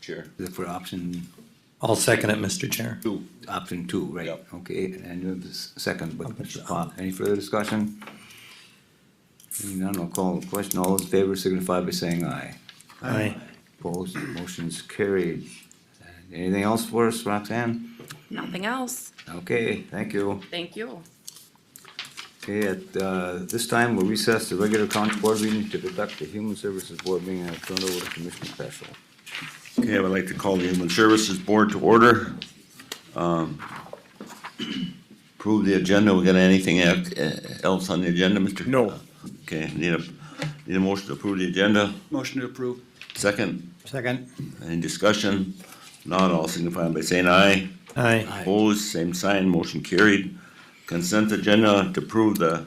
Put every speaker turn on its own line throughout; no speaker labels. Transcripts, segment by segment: Chair.
for option,
I'll second it, Mr. Chair.
Two.
option two, right?
Yep.
Okay, and you have the s- second, but Mr. Pop, any further discussion? Hearing none, I'll call the question. All those in favor signify by saying aye.
Aye.
Opposed, motion's carried. Anything else for us, Roxanne?
Nothing else.
Okay, thank you.
Thank you.
Okay, at, uh, this time, we'll recess the regular county board meeting to conduct the Human Services Board meeting and turn it over to Commissioner Peschel.
Okay, I would like to call the Human Services Board to order. Um, Approve the agenda, we got anything ac- eh, else on the agenda, Mr.?
No.
Okay, need a, need a motion to approve the agenda,
Motion to approve.
second,
Second.
any discussion? Not all signify by saying aye.
Aye.
Opposed, same sign, motion carried. Consent agenda to approve the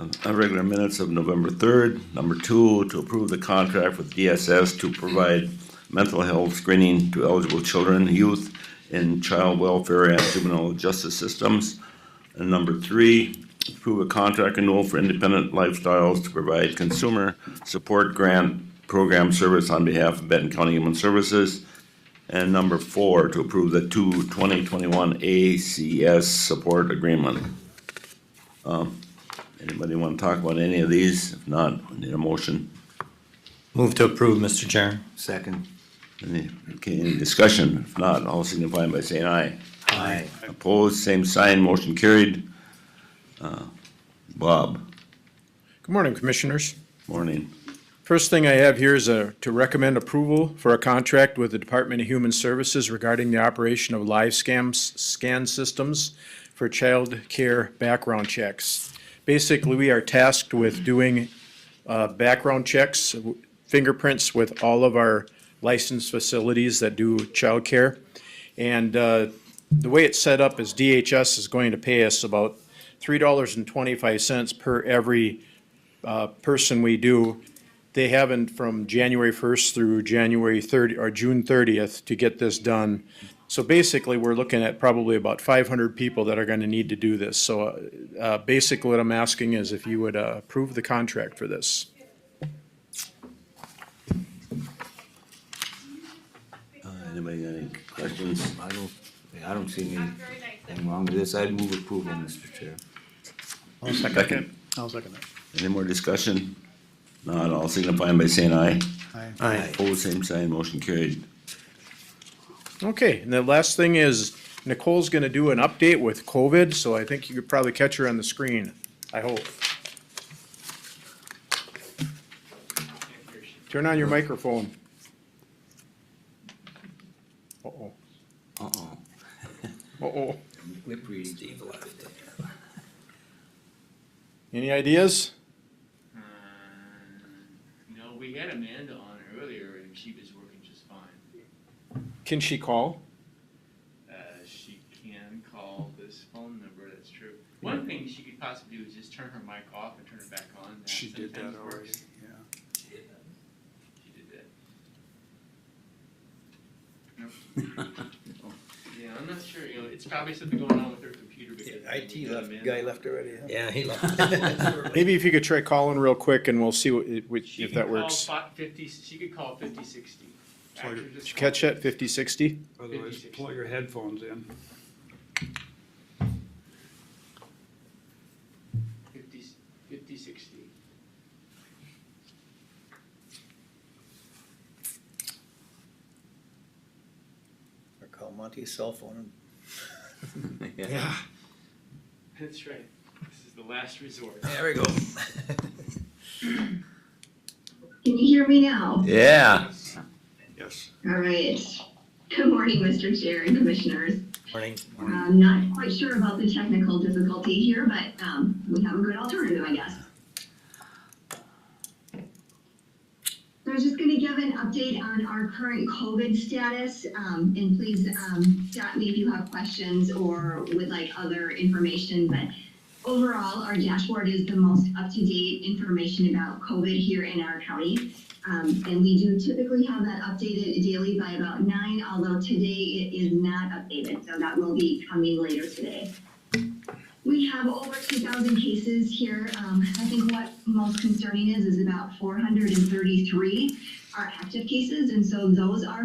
uh, irregular minutes of November third. Number two, to approve the contract with DSS to provide mental health screening to eligible children, youth, in child welfare and juvenile justice systems. And number three, approve a contract renewal for Independent Lifestyles to provide consumer support grant program service on behalf of Benton County Human Services. And number four, to approve the two 2021 ACS support agreement. Um, Anybody wanna talk about any of these? If not, I need a motion.
Move to approve, Mr. Chair.
Second.
Any, okay, any discussion? If not, all signify by saying aye.
Aye.
Opposed, same sign, motion carried. Uh, Bob,
Good morning, Commissioners.
morning.
First thing I have here is a, to recommend approval for a contract with the Department of Human Services regarding the operation of live scams, scan systems for child care background checks. Basically, we are tasked with doing, uh, background checks, fingerprints with all of our licensed facilities that do child care. And, uh, the way it's set up is DHS is going to pay us about three dollars and twenty-five cents per every, uh, person we do they haven't from January first through January thirty, or June thirtieth to get this done. So basically, we're looking at probably about five hundred people that are gonna need to do this. So, uh, uh, basically what I'm asking is if you would, uh, approve the contract for this.
Uh, Anybody got any questions?
I don't, I don't see anything wrong with this. I'd move approval, Mr. Chair.
I'll second it.
Second,
I'll second it.
any more discussion? Not all signify by saying aye.
Aye.
Aye.
Opposed, same sign, motion carried.
Okay, and the last thing is Nicole's gonna do an update with COVID, so I think you could probably catch her on the screen, I hope. Turn on your microphone. Uh-oh,
Uh-oh.
uh-oh.
Lip reading. Steve left.
Any ideas?
Uh, No, we had Amanda on earlier and she was working just fine.
Can she call?
Uh, she can call this phone number, that's true. One thing she could possibly do is just turn her mic off and turn it back on. That
She did that
sometimes
already,
works.
yeah.
She did that. Yeah, I'm not sure, you know, it's probably something going on with her computer because. we got Amanda.
left already.
Yeah, he left.
Maybe if you could try calling real quick and we'll see what, it- which,
She
if
could
that works.
call fi- fifty, she could call fifty sixty.
Sorry,
After
did
this
Did you
call.
catch that, fifty, sixty?
Otherwise, pull your headphones in.
Fifty, fifty, sixty.
Or call Monty's cell phone.
Yeah.
That's right. This is the last resort.
There we go.
Can you hear me now?
Yeah.
Yes.
All right. Good morning, Mr. Chair and Commissioners.
Morning.
I'm not quite sure about the technical difficulty here, but um, we have a good alternative, I guess. So I was just going to give an update on our current COVID status, um, and please um, stop me if you have questions or would like other information. But overall, our dashboard is the most up-to-date information about COVID here in our county. Um, and we do typically have that updated daily by about nine, although today it is not updated, so that will be coming later today. We have over two thousand cases here. Um, I think what most concerning is, is about four hundred and thirty-three are active cases, and so those are